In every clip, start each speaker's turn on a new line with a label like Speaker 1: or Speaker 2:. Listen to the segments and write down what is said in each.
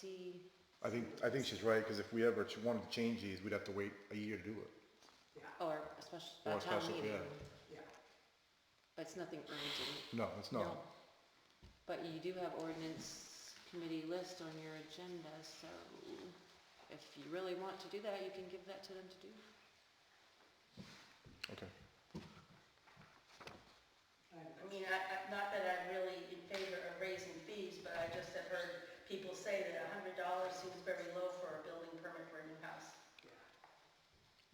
Speaker 1: see,
Speaker 2: I think, I think she's right, because if we ever ch- wanted to change these, we'd have to wait a year to do it.
Speaker 1: or a special,
Speaker 2: Or
Speaker 1: a
Speaker 2: a
Speaker 1: town
Speaker 2: special,
Speaker 1: meeting.
Speaker 2: yeah.
Speaker 1: But it's nothing urgent.
Speaker 2: No, it's not.
Speaker 1: But you do have ordinance committee list on your agenda, so if you really want to do that, you can give that to them to do.
Speaker 2: Okay.
Speaker 3: I mean, I, I, not that I'm really in favor of raising fees, but I just have heard people say that a hundred dollars seems very low for a building permit for a new house.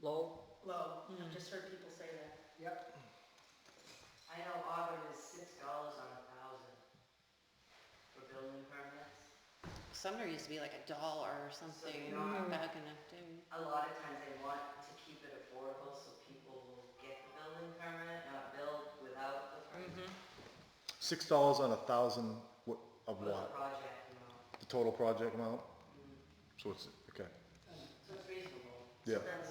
Speaker 4: Low?
Speaker 3: Low, I've just heard people say that.
Speaker 4: Yep.
Speaker 5: I know Auburn is six dollars on a thousand for building permits.
Speaker 1: Sumner used to be like a dollar or something
Speaker 5: you're not-
Speaker 1: back in the day.
Speaker 5: A lot of times they want to keep it affordable so people will get the building permit, not build without the permit.
Speaker 2: Six dollars on a thousand, what, of
Speaker 5: For the
Speaker 2: what?
Speaker 5: project, you know, Mm-hmm.
Speaker 2: The total project amount? So it's, okay,
Speaker 5: so it's reasonable.
Speaker 2: yeah.
Speaker 3: That's-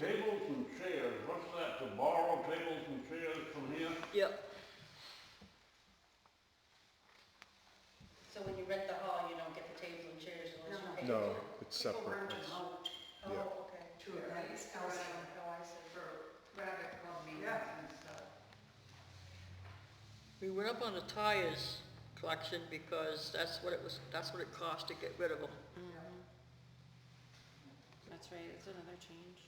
Speaker 6: Tables and chairs, what's that, to borrow tables and chairs from here?
Speaker 4: Yep.
Speaker 3: So when you rent the hall, you don't get the tables and chairs unless you pay.
Speaker 2: No, it's separate. Yeah.
Speaker 3: Oh, okay.
Speaker 7: to a nice house
Speaker 3: Oh, I see.
Speaker 7: for rabbit club meetings and stuff.
Speaker 4: We went up on the tires collection because that's what it was, that's what it cost to get rid of them.
Speaker 1: That's right, it's another change.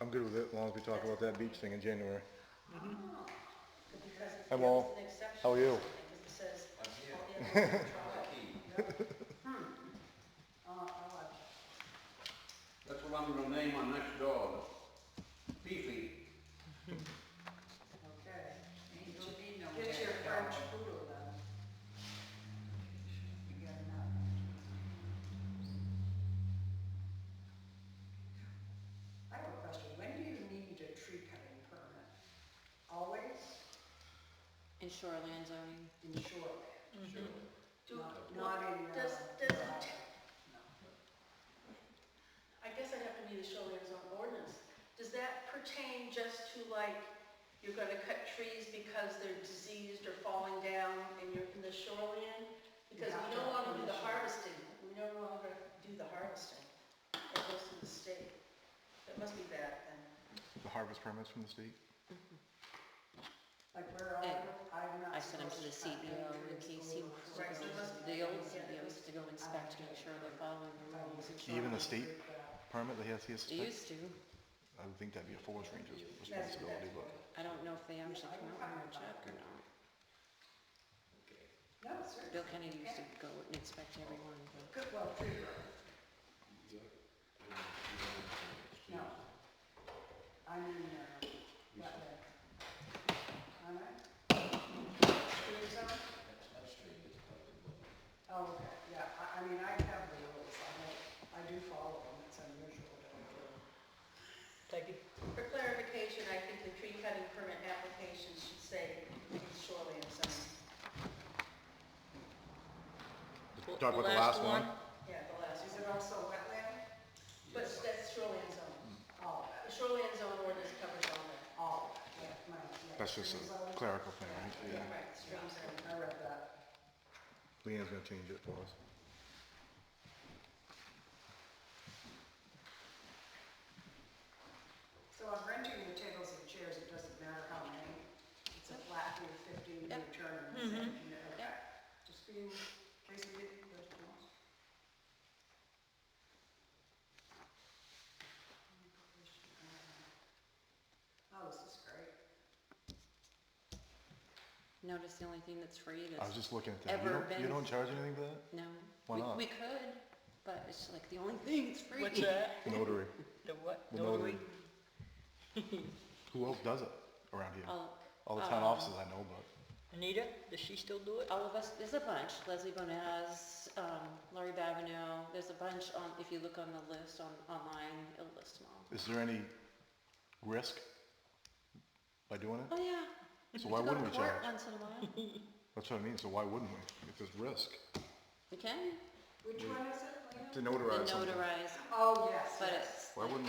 Speaker 2: I'm good with it, as long as we talk about that beach thing in January.
Speaker 3: Because it's
Speaker 2: I'm
Speaker 3: yeah, it's
Speaker 2: all-
Speaker 3: an exception.
Speaker 2: how are you?
Speaker 3: Because it says.
Speaker 7: Oh,
Speaker 6: That's what I'm gonna name my next dog. Fifi.
Speaker 7: Okay. Ain't no need no
Speaker 3: Get your
Speaker 7: bad
Speaker 3: French
Speaker 7: dog. You got enough. I have a question. When do you need a tree cutting permit? Always
Speaker 1: In shoreline zoning,
Speaker 7: in shoreline?
Speaker 3: Do-
Speaker 7: Not- Not in, uh.
Speaker 3: Does, does,
Speaker 7: No.
Speaker 3: I guess I'd have to be the showman's on ordinance. Does that pertain just to like, you're gonna cut trees because they're diseased or falling down and you're in the shoreline? Because we don't wanna do the harvesting, we no longer do the harvesting. That goes to the state. That must be that then.
Speaker 2: The harvest permits from the state?
Speaker 7: Like where I, I'm not.
Speaker 1: I sent them to the um,
Speaker 7: supposed cut
Speaker 1: CEO
Speaker 7: down
Speaker 1: and
Speaker 7: trees
Speaker 1: KC,
Speaker 7: going
Speaker 1: was
Speaker 7: forward.
Speaker 3: Right, so it must
Speaker 1: supposed- the old CEO used to go inspect to make sure they're following the rules in
Speaker 2: Even the
Speaker 1: shoreline.
Speaker 2: state permit that he has, he has to
Speaker 1: They
Speaker 2: take?
Speaker 1: used to,
Speaker 2: I would think that'd be a forest ranger's responsibility, but.
Speaker 1: I don't know if they actually come out and check or not.
Speaker 7: No, sir.
Speaker 1: Bill Kennedy used to go and inspect everyone, but
Speaker 7: Good, well, tree growth. No. I mean, uh, that way. All right? Tree zone? Oh, okay, yeah, I, I mean, I have the rules, I, don't- I do follow them, it's unusual that I do.
Speaker 4: Take it.
Speaker 3: For clarification, I think the tree cutting permit application should say shoreline zone.
Speaker 4: Well,
Speaker 2: Talk about the last one?
Speaker 3: Yeah, the last
Speaker 7: Is
Speaker 3: one.
Speaker 7: it also wetland?
Speaker 3: But that's shoreline zone.
Speaker 7: All of it,
Speaker 3: The shoreline zone ordinance covers
Speaker 7: all of
Speaker 3: all that.
Speaker 7: it, yeah, my, yeah.
Speaker 2: That's just
Speaker 7: Tree
Speaker 2: a
Speaker 7: zone,
Speaker 2: clerical thing, right? Yeah.
Speaker 3: Right, streams are.
Speaker 7: I read that.
Speaker 2: Leanne's gonna change it for us.
Speaker 7: So I'm renting the tables and chairs, it doesn't matter how many, it's a flat fee of fifteen, you
Speaker 1: Yep. Mm-hmm.
Speaker 7: return them, and then, you know,
Speaker 1: Yep.
Speaker 7: just being, in case you didn't, but, you know. Oh, this is great.
Speaker 1: notice the only thing that's free
Speaker 2: I was
Speaker 1: that's,
Speaker 2: just looking at that. You
Speaker 1: Ever
Speaker 2: don't, you
Speaker 1: been-
Speaker 2: don't charge anything for that?
Speaker 1: no.
Speaker 2: Why
Speaker 1: We-
Speaker 2: not?
Speaker 1: We could, but it's like the only thing that's free.
Speaker 4: What's that?
Speaker 2: Notary.
Speaker 4: The what?
Speaker 2: The notary. Who else does it around here?
Speaker 1: All,
Speaker 2: All the town
Speaker 1: um,
Speaker 2: offices I know, but.
Speaker 4: Anita, does she still do it?
Speaker 1: all of us, there's a bunch, Leslie Bonaz, um, Laurie Babineau, there's a bunch on, if you look on the list on, online, it'll list them all.
Speaker 2: Is there any risk by doing
Speaker 1: Oh,
Speaker 2: it?
Speaker 1: yeah.
Speaker 2: So why
Speaker 1: You go to
Speaker 2: wouldn't we
Speaker 1: court
Speaker 2: charge?
Speaker 1: Once in a while.
Speaker 2: That's what I mean, so why wouldn't we? If there's risk.
Speaker 1: You can,
Speaker 7: Which one is it, Lena?
Speaker 2: To
Speaker 1: and
Speaker 2: notarize something.
Speaker 1: notarize,
Speaker 7: Oh, yes,
Speaker 1: but
Speaker 7: yes.
Speaker 1: it's
Speaker 2: Why
Speaker 1: like-
Speaker 2: wouldn't